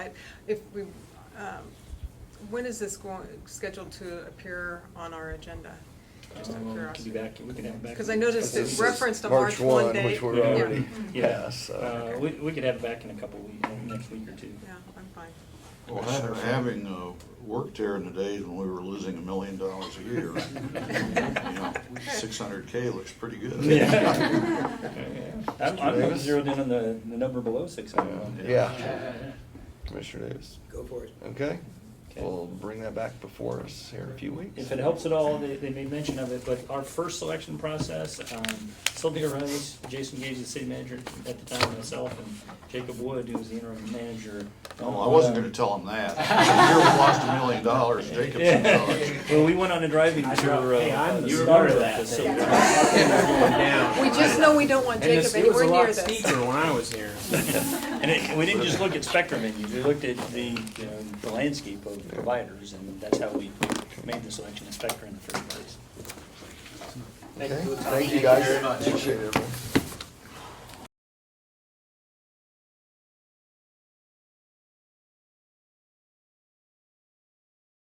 side. If we, um, when is this going, scheduled to appear on our agenda? Just out of Um, curiosity. Could be back, we could have it back. Because I noticed This it is- referenced Mm-hmm. a March one date. Which we're Yeah. already Yeah. past, Uh, so. we, we could have it back in a couple weeks, next week or two. Yeah, I'm fine. Well, ha- having uh, worked there in the days when we were losing a million dollars a year, six hundred K looks pretty good. Yeah. I'm, I'm gonna Davis? zero in on the, the number below six hundred. Yeah. Commissioner Davis, Go for it. okay? Okay. We'll bring that back before us here in a few weeks. If it helps at all, they, they made mention of it, but our first selection process, um, Sylvia Rose, Jason Gage, the city manager at the time, myself, and Jacob Wood, who was the interim manager. No, Oh, I wasn't gonna tell him that. Here we lost a million dollars, Jacob's in charge. Yeah. Well, we went on a driving I know. tour. uh, Hey, I'm the you star remember of that. that so- thing. We just know we don't want And Jacob this, it was anywhere a near lot this. steeper when I was here. And it, we didn't just look at spectrum menus, we looked at the, you know, the landscape of providers, and that's how we made the selection of spectrum in the first place. Okay, thank you guys. Appreciate it. everyone.